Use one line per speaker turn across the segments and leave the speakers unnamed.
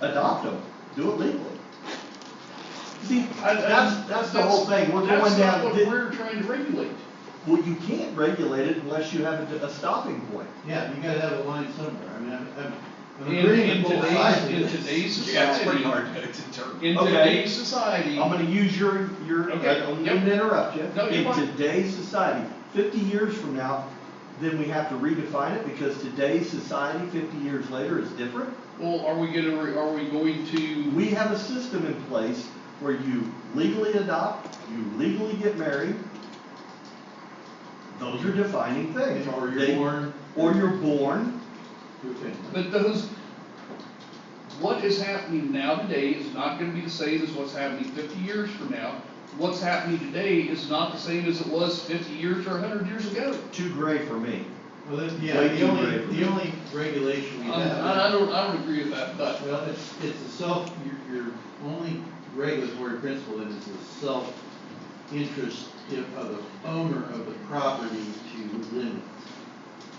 adopt them, do it legally. See,
I- I-
that's, that's the whole thing, we're going
That's not
down,
what
di-
we're trying to regulate.
well, you can't regulate it unless you have a, a stopping point.
Yeah, you gotta have a line somewhere, I mean, I'm, I'm- I'm
In-
agreeing
in
with both
today's-
sides of
in
this.
today's
Yeah, it's pretty
society-
hard to determine.
In
Okay.
today's society,
I'm gonna use your, your,
Okay,
I'm
yep.
gonna interrupt you.
No, you're fine.
In today's society, fifty years from now, then we have to redefine it because today's society, fifty years later, is different.
well, are we gonna, re- are we going to,
We have a system in place where you legally adopt, you legally get married. Those are defining things.
Or you're
They-
born.
Or you're born.
Your opinion.
but those, what is happening now today is not gonna be the same as what's happening fifty years from now. What's happening today is not the same as it was fifty years or hundred years ago.
Too gray for me.
Well, then, yeah,
Like
the
you
only,
agree.
the only regulation we
Um,
have.
I, I don't, I don't agree with that, but,
Well, it's, it's a self, your, your only regulatory principle is the self-interest if- of the owner of the property to limit.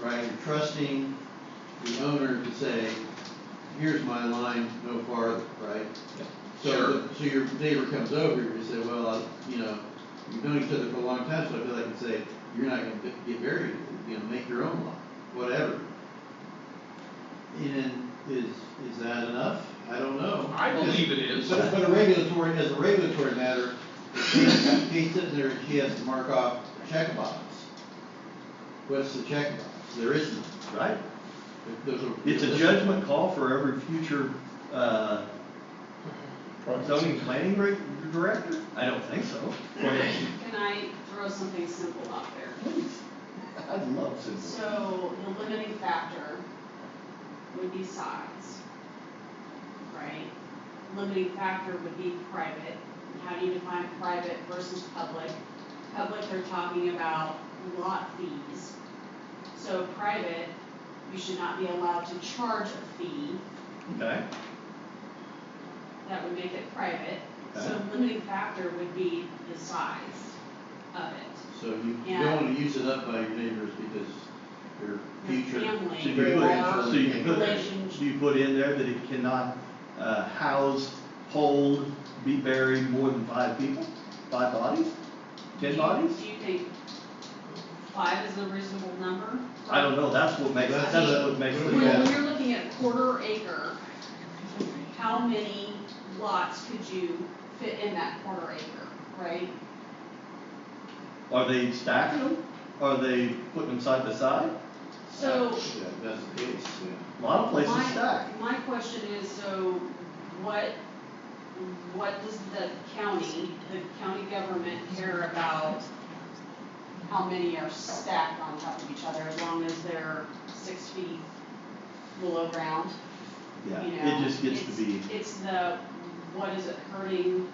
Right, you're trusting the owner to say, here's my line, no farther, right? So, the- so your neighbor comes over, you say, well, I- you know, we've known each other for a long time, so I feel like I can say, you're not gonna get- get married, you know, make your own law, whatever. And is, is that enough? I don't know.
I believe it is.
But, but a regulatory, as a regulatory matter, he's sitting there and she has to mark off a checkbox. What's the checkbox? There is none.
Right.
There's a.
It's a judgment call for every future, uh, zoning planning re- director? I don't think so. Go ahead.
Can I throw something simple out there?
Please. I'd love to.
So the limiting factor would be size, right? Limiting factor would be private. How do you define private versus public? Public, they're talking about lot fees. So private, you should not be allowed to charge a fee.
Okay.
that would make it private. So
Okay.
limiting factor would be the size of it.
So you, you
Yeah.
don't wanna use it up by your neighbors because your
Your
future.
family.
So you
great
put,
grandchildren
so you
can't
put,
go there.
Relationship.
so you put in there that it cannot, uh, house, hold, be buried more than five people, five bodies,
Do
ten
you-
bodies?
Do you think five is a reasonable number?
I don't know, that's what makes,
That's-
that's what makes it,
When
Yeah.
when you're looking at quarter acre, how many lots could you fit in that quarter acre, right?
are they stacking them? Are they putting them side by side?
So
Yeah, that's the case, yeah.
A lot of places
My-
stack.
My question is, so what, what does the county, the county government care about how many are stacked on top of each other as long as they're six feet below ground, you
Yeah,
know?
it just gets to
It's-
be,
It's the, what is it hurting?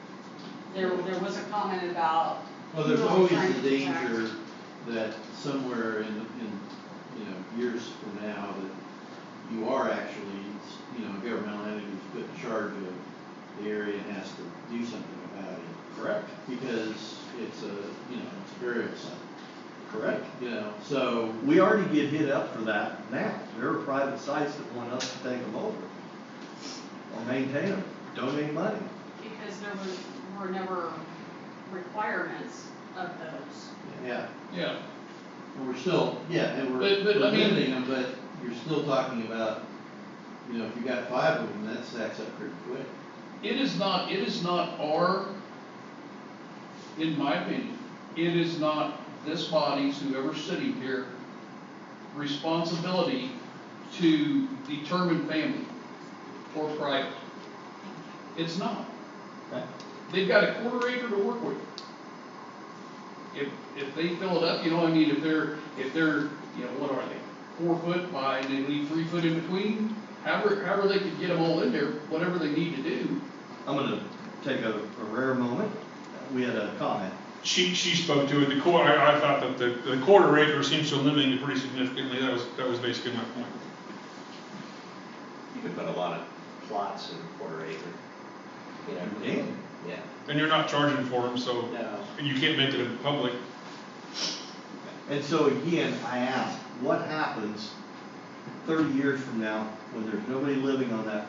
There, there was a comment about.
Well, there's
who are we
always
trying
the
to protect?
danger that somewhere in, in, you know, years from now, that you are actually, you know, a governmental entity who's put in charge of the area and has to do something about it.
correct,
Because it's a, you know, it's a burial site,
correct.
you know, so,
We already get hit up for that now. There are private sites that want us to take them over or maintain them, donate money.
Because there was, were never requirements of those.
yeah.
yeah,
And we're still, yeah, and we're
But- but,
we're
I mean-
limiting them, but you're still talking about, you know, if you got five of them, that stacks up pretty quick.
it is not, it is not our, in my opinion, it is not this body's, whoever's sitting here, responsibility to determine family or private. It's not.
Okay.
They've got a quarter acre to work with. If, if they fill it up, you know, I mean, if they're, if they're, you know, what are they? Four foot by, and they leave three foot in between, however, however they could get them all in there, whatever they need to do.
I'm gonna take a, a rare moment. We had a comment.
She, she spoke to it, the quarter, I, I thought that the, the quarter acre seems to eliminate it pretty significantly, that was, that was basically my point.
You could put a lot of plots in a quarter acre. You know?
Dan?
Yeah.
And you're not charging for them, so,
No.
and you can't make it in public.
And so again, I ask, what happens thirty years from now when there's nobody living on that